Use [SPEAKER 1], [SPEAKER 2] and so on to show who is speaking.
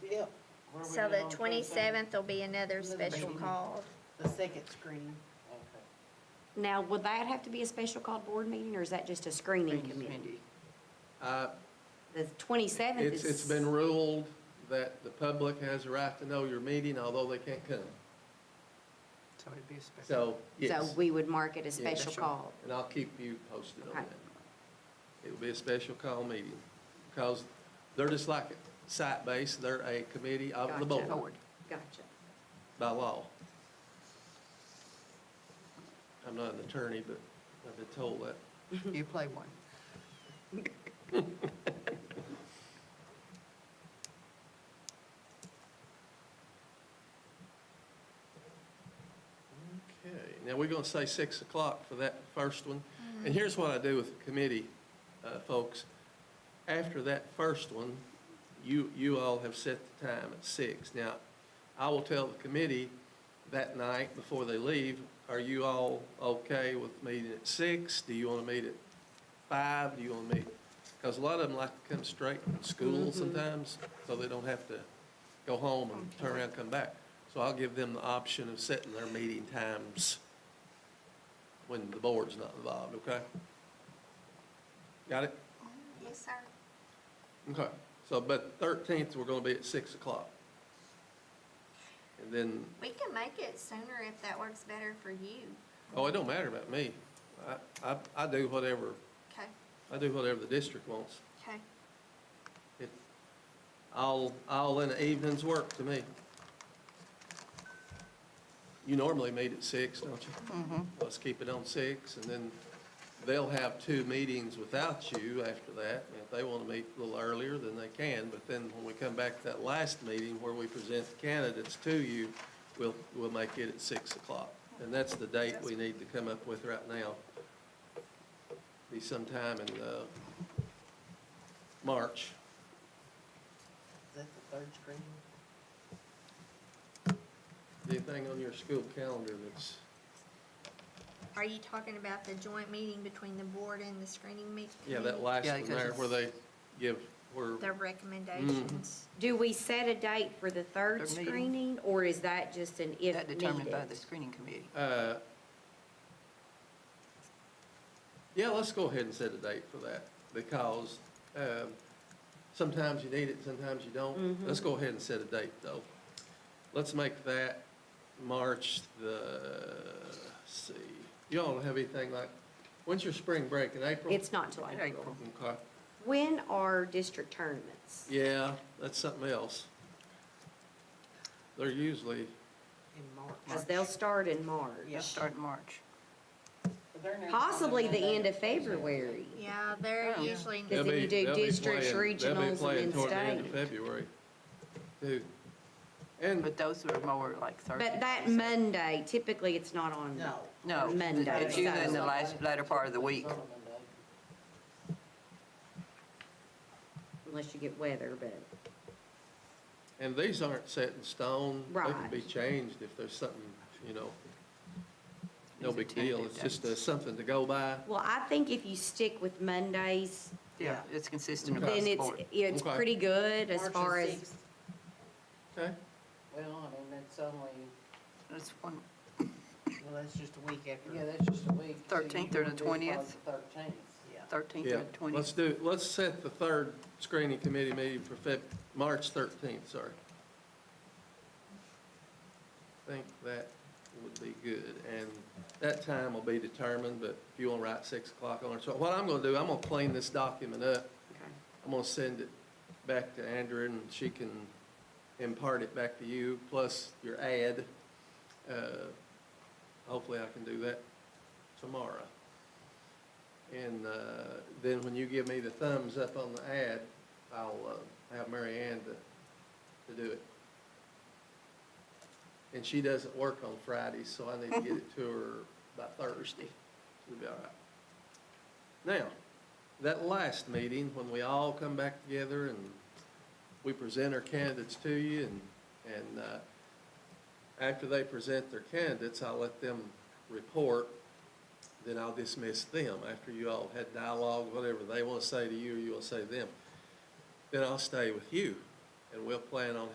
[SPEAKER 1] Where we been
[SPEAKER 2] So the
[SPEAKER 1] on Thursday?
[SPEAKER 2] twenty-seventh will be another
[SPEAKER 1] Another
[SPEAKER 2] special
[SPEAKER 1] meeting.
[SPEAKER 2] call.
[SPEAKER 1] The second screen. Okay.
[SPEAKER 3] Now, would that have to be a special called board meeting, or is that just a screening committee?
[SPEAKER 4] Uh,
[SPEAKER 3] The twenty-seventh
[SPEAKER 4] It's,
[SPEAKER 3] is.
[SPEAKER 4] it's been ruled that the public has a right to know your meeting, although they can't come.
[SPEAKER 5] So it'd be a special.
[SPEAKER 4] So, yes.
[SPEAKER 3] So we would mark it a special
[SPEAKER 4] Yes.
[SPEAKER 3] call.
[SPEAKER 4] And I'll keep you posted on
[SPEAKER 3] Okay.
[SPEAKER 4] that. It will be a special call meeting, because they're just like site-based, they're a committee of the
[SPEAKER 3] Gotcha.
[SPEAKER 4] board
[SPEAKER 3] Gotcha.
[SPEAKER 4] by law. I'm not an attorney, but I've been told that.
[SPEAKER 5] You play one.
[SPEAKER 4] Okay, now we're gonna say six o'clock for that first one. And here's what I do with the committee, uh, folks. After that first one, you, you all have set the time at six. Now, I will tell the committee that night before they leave, are you all okay with meeting at six? Do you wanna meet at five? Do you wanna meet? Cause a lot of them like to come straight from school sometimes, so they don't have to go home and turn around and come back. So I'll give them the option of setting their meeting times when the board's not involved, okay? Got it?
[SPEAKER 2] Yes, sir.
[SPEAKER 4] Okay. So, but thirteenth, we're gonna be at six o'clock. And then,
[SPEAKER 2] We can make it sooner if that works better for you.
[SPEAKER 4] oh, it don't matter about me. I, I, I do whatever,
[SPEAKER 2] Okay,
[SPEAKER 4] I do whatever the district wants.
[SPEAKER 2] okay.
[SPEAKER 4] It, all, all in the evenings work to me. You normally meet at six, don't you? Mm-hmm. Let's keep it on six, and then they'll have two meetings without you after that. And If they want to meet a little earlier, then they can, but then when we come back to that last meeting where we present the candidates to you, we'll, we'll make it at six o'clock. And that's the date we need to come up with right now. Be sometime in, uh, March.
[SPEAKER 1] Is that the third screen?
[SPEAKER 4] Anything on your school calendar that's,
[SPEAKER 2] Are you talking about the joint meeting between the board and the screening meet?
[SPEAKER 4] yeah, that last
[SPEAKER 5] Yeah,
[SPEAKER 4] one there where they give,
[SPEAKER 2] Their
[SPEAKER 4] where,
[SPEAKER 2] recommendations.
[SPEAKER 3] Do we set a date for the third
[SPEAKER 5] Third meeting.
[SPEAKER 3] screening, or is that just an if
[SPEAKER 5] That determined by the
[SPEAKER 3] needed?
[SPEAKER 5] screening committee.
[SPEAKER 4] uh, yeah, let's go ahead and set a date for that because, um, sometimes you need it, sometimes you don't. Let's go ahead and set a date though. Let's make that March the, let's see, y'all don't have anything like, when's your spring break in April?
[SPEAKER 3] It's not till April.
[SPEAKER 5] April.
[SPEAKER 4] Okay,
[SPEAKER 3] When are district tournaments?
[SPEAKER 4] yeah, that's something else. They're usually
[SPEAKER 1] In March.
[SPEAKER 3] Because they'll start in March.
[SPEAKER 5] Yeah, start in March.
[SPEAKER 3] Possibly the end of February.
[SPEAKER 4] Mm-hmm.
[SPEAKER 2] Yeah, they're
[SPEAKER 5] Oh.
[SPEAKER 2] usually,
[SPEAKER 3] Yeah.
[SPEAKER 4] They'll
[SPEAKER 3] then
[SPEAKER 4] be-
[SPEAKER 3] you do
[SPEAKER 4] they'll be
[SPEAKER 3] districts,
[SPEAKER 4] playing- they'll be
[SPEAKER 3] regionals, and
[SPEAKER 4] playing
[SPEAKER 3] then
[SPEAKER 4] toward the end of
[SPEAKER 3] state.
[SPEAKER 4] February, too.
[SPEAKER 5] But
[SPEAKER 4] And,
[SPEAKER 5] those are more like Thursday.
[SPEAKER 3] But that Monday, typically it's not on.
[SPEAKER 1] No.
[SPEAKER 5] No.
[SPEAKER 3] Monday,
[SPEAKER 5] It's usually in the
[SPEAKER 3] so-
[SPEAKER 5] last, latter part of the week.
[SPEAKER 3] Unless you get weather, but,
[SPEAKER 4] and these aren't set in stone. They can
[SPEAKER 3] Right.
[SPEAKER 4] be changed if there's something, you know, no
[SPEAKER 5] These are
[SPEAKER 4] big deal. It's
[SPEAKER 5] tentative
[SPEAKER 4] just uh,
[SPEAKER 5] dates.
[SPEAKER 4] something to go by.
[SPEAKER 3] well, I think if you stick with Mondays,
[SPEAKER 5] Yeah, it's consistent across
[SPEAKER 3] then
[SPEAKER 5] the
[SPEAKER 3] it's,
[SPEAKER 5] board.
[SPEAKER 3] it's
[SPEAKER 4] Okay.
[SPEAKER 3] pretty good as
[SPEAKER 1] March the
[SPEAKER 3] far as,
[SPEAKER 1] 6th.
[SPEAKER 4] Okay?
[SPEAKER 6] Well, I mean, that's only,
[SPEAKER 5] It's one,
[SPEAKER 1] Well, that's just a week after.
[SPEAKER 6] yeah, that's just a week. so you
[SPEAKER 5] 13th or the
[SPEAKER 6] wanna do probably
[SPEAKER 5] 20th?
[SPEAKER 6] the 13th.
[SPEAKER 1] Yeah.
[SPEAKER 5] 13th
[SPEAKER 4] Yeah.
[SPEAKER 5] or the
[SPEAKER 4] Let's
[SPEAKER 5] 20th.
[SPEAKER 4] do, let's set the third screening committee meeting for Feb, March 13th, sorry. I think that would be good, and that time will be determined, but if you want to write 6 o'clock on it. So what I'm going to do, I'm going to clean this document up.
[SPEAKER 3] okay.
[SPEAKER 4] I'm gonna send it back to Andrea and she can impart it back to you, plus your ad. Uh, Hopefully I can do that tomorrow. And uh, then when you give me the thumbs up on the ad, I'll uh, have Mary Ann to, to do it. And she doesn't work on Fridays, so I need to get it to her by Thursday. It'll be all right. Now, that last meeting, when we all come back together and we present our candidates to you and, and, uh, after they present their candidates, I'll let them report, then I'll dismiss them after you all had dialogue, whatever they want to say to you or you want to say to them. Then I'll stay with you and we'll plan on